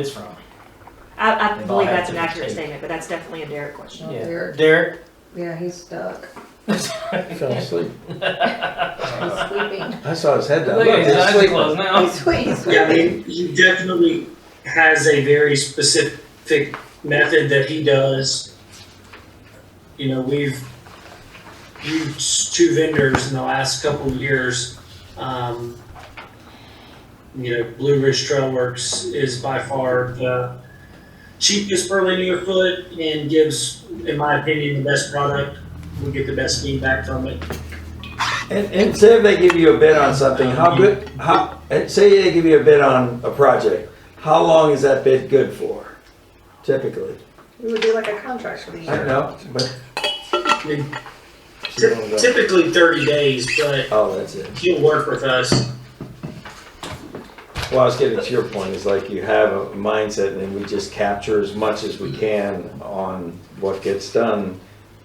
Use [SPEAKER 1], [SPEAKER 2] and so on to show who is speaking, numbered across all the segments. [SPEAKER 1] it's from.
[SPEAKER 2] I, I
[SPEAKER 1] If I
[SPEAKER 2] believe
[SPEAKER 1] had
[SPEAKER 2] that's an
[SPEAKER 1] to
[SPEAKER 2] accurate
[SPEAKER 1] take-
[SPEAKER 2] statement, but that's definitely a Derek question.
[SPEAKER 3] Oh,
[SPEAKER 1] Yeah.
[SPEAKER 3] Derek.
[SPEAKER 1] Derek.
[SPEAKER 3] Yeah, he's stuck.
[SPEAKER 4] Fell asleep.
[SPEAKER 3] He's sleeping.
[SPEAKER 4] I saw his head down.
[SPEAKER 1] Look at his eyes are closed now.
[SPEAKER 3] He's sweet. He's
[SPEAKER 5] Yeah, I
[SPEAKER 3] sweet.
[SPEAKER 5] mean, he definitely has a very specific method that he does. You know, we've used two vendors in the last couple of years. Um, you know, Blue Ridge Trail Works is by far the cheapest per linear foot and gives, in my opinion, the best product. We get the best feedback from it.
[SPEAKER 4] And, and say if they give you a bid on something, how good, how, and say they give you a bid on a project, how long is that bid good for? Typically,
[SPEAKER 3] We would do like a contract for the
[SPEAKER 4] I don't
[SPEAKER 3] year.
[SPEAKER 4] know, but.
[SPEAKER 5] I mean, typ- typically thirty days, but
[SPEAKER 4] Oh, that's it.
[SPEAKER 5] he'll work with us.
[SPEAKER 4] Well, I was getting to your point, is like you have a mindset and we just capture as much as we can on what gets done,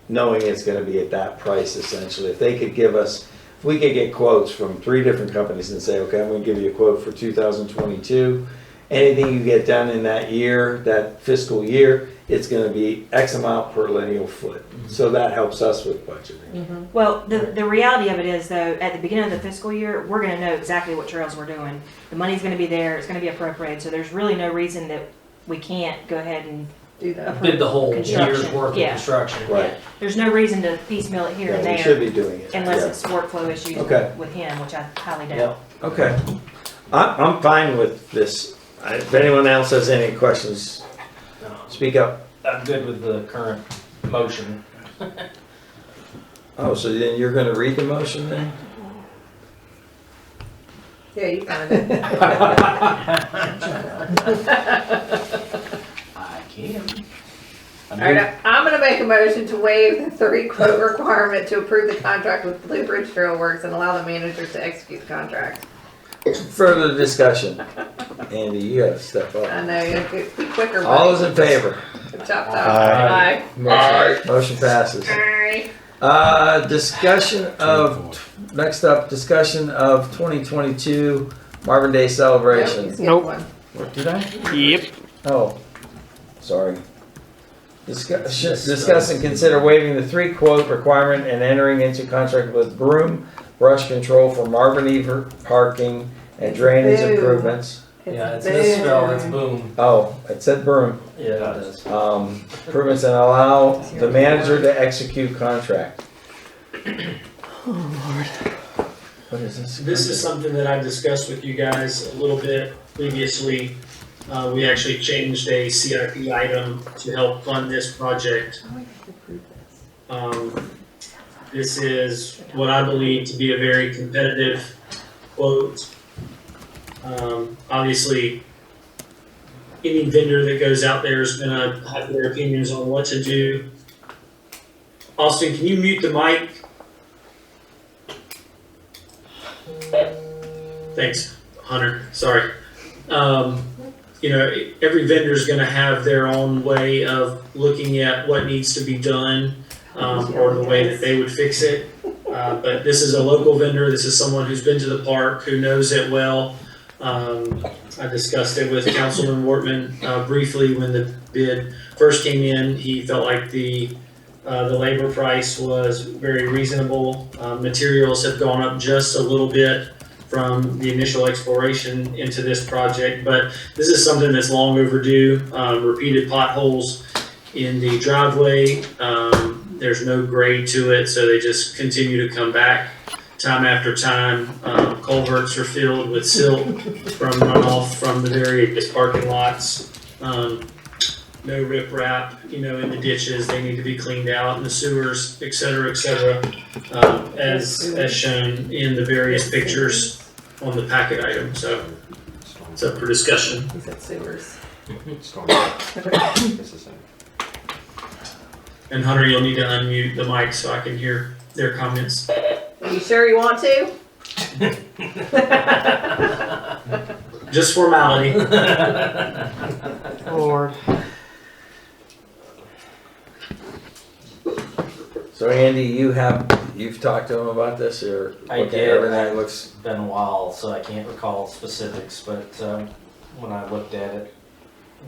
[SPEAKER 4] knowing it's gonna be at that price essentially. If they could give us, if we could get quotes from three different companies and say, okay, I'm gonna give you a quote for two thousand twenty-two. Anything you get done in that year, that fiscal year, it's gonna be X amount per lineal foot.
[SPEAKER 2] Mm-hmm.
[SPEAKER 4] So that helps us with budgeting.
[SPEAKER 2] Well, the, the reality of it is though, at the beginning of the fiscal year, we're gonna know exactly what trails we're doing. The money's gonna be there, it's gonna be appropriated, so there's really no reason that we can't go ahead and,
[SPEAKER 3] Do that.
[SPEAKER 1] Did the whole year's
[SPEAKER 2] Construction,
[SPEAKER 1] worth of
[SPEAKER 2] yeah.
[SPEAKER 1] construction.
[SPEAKER 4] Right,
[SPEAKER 2] there's no reason to piecemeal it here and
[SPEAKER 4] yeah, we should
[SPEAKER 2] there
[SPEAKER 4] be doing it.
[SPEAKER 2] unless
[SPEAKER 4] yeah.
[SPEAKER 2] it's workflow issues
[SPEAKER 4] Okay.
[SPEAKER 2] with him, which I highly doubt.
[SPEAKER 1] Yep.
[SPEAKER 4] Okay. I, I'm fine with this. I- If anyone else has any questions, speak up.
[SPEAKER 1] I'm good with the current motion.
[SPEAKER 4] Oh, so then you're gonna read the motion then?
[SPEAKER 3] Yeah, you found it.
[SPEAKER 1] I can.
[SPEAKER 3] All right, I- I'm gonna make a motion to waive the three quote requirement to approve the contract with Blue Ridge Trail Works and allow the manager to execute the contract.
[SPEAKER 4] Further discussion. Andy, you gotta step
[SPEAKER 3] I
[SPEAKER 4] up.
[SPEAKER 3] know, you have to be quicker.
[SPEAKER 4] All
[SPEAKER 3] buddy.
[SPEAKER 4] those in favor?
[SPEAKER 3] Chop, chop.
[SPEAKER 4] Aye.
[SPEAKER 3] Bye.
[SPEAKER 4] Motion motion passes.
[SPEAKER 3] Aye.
[SPEAKER 4] Uh, discussion of, next up, discussion of 2022 Marvin Day
[SPEAKER 3] Nope, you
[SPEAKER 4] celebration.
[SPEAKER 3] skipped
[SPEAKER 6] Nope.
[SPEAKER 3] one.
[SPEAKER 4] What Did I?
[SPEAKER 6] Yep.
[SPEAKER 4] Oh, sorry. Discuss, discuss and consider waiving the three quote requirement and entering into contract with Broom Brush Control for Marvin Ever parking and drainage
[SPEAKER 3] Boo.
[SPEAKER 4] improvements.
[SPEAKER 1] Yeah, it's
[SPEAKER 3] boo.
[SPEAKER 1] misspelled, it's boom.
[SPEAKER 4] Oh, it said Broom,
[SPEAKER 1] Yeah, it does.
[SPEAKER 4] um, improvements and allow the manager to execute contract. What is this?
[SPEAKER 5] This is something that I've discussed with you guys a little bit previously. Uh, we actually changed a CIP item to help fund this project.
[SPEAKER 3] Oh, we have to approve this.
[SPEAKER 5] Um, this is what I believe to be a very competitive quote. Um, obviously, any vendor that goes out there is gonna have their opinions on what to do. Austin, can you mute the mic? Thanks, Hunter, sorry. Um, you know, every vendor's gonna have their own way of looking at what needs to be done, um, or the way that they would fix it. Uh, but this is a local vendor, this is someone who's been to the park, who knows it well. Um, I discussed it with Councilman Wortman, uh, briefly when the bid first came in, he felt like the, uh, the labor price was very reasonable. Uh, materials have gone up just a little bit from the initial exploration into this project, but this is something that's long overdue. Um, repeated potholes in the driveway. Um, there's no grade to it, so they just continue to come back time after time. Um, culverts are filled with silt from runoff from the various parking lots. Um, no riprap, you know, in the ditches. They need to be cleaned out in the sewers, et cetera, et cetera, um, as, as shown in the various pictures on the packet item. So it's up for discussion.
[SPEAKER 3] He said sewers.
[SPEAKER 5] And Hunter, you'll need to unmute the mic so I can hear their comments.
[SPEAKER 3] Are you sure you want to?
[SPEAKER 5] Just formality.
[SPEAKER 6] Lord.
[SPEAKER 4] So Andy, you have, you've talked to him about this or?
[SPEAKER 1] I
[SPEAKER 4] looked at
[SPEAKER 1] did.
[SPEAKER 4] Everything looks,
[SPEAKER 1] It's been a while, so I can't recall specifics, but, um, uh, when I looked at it,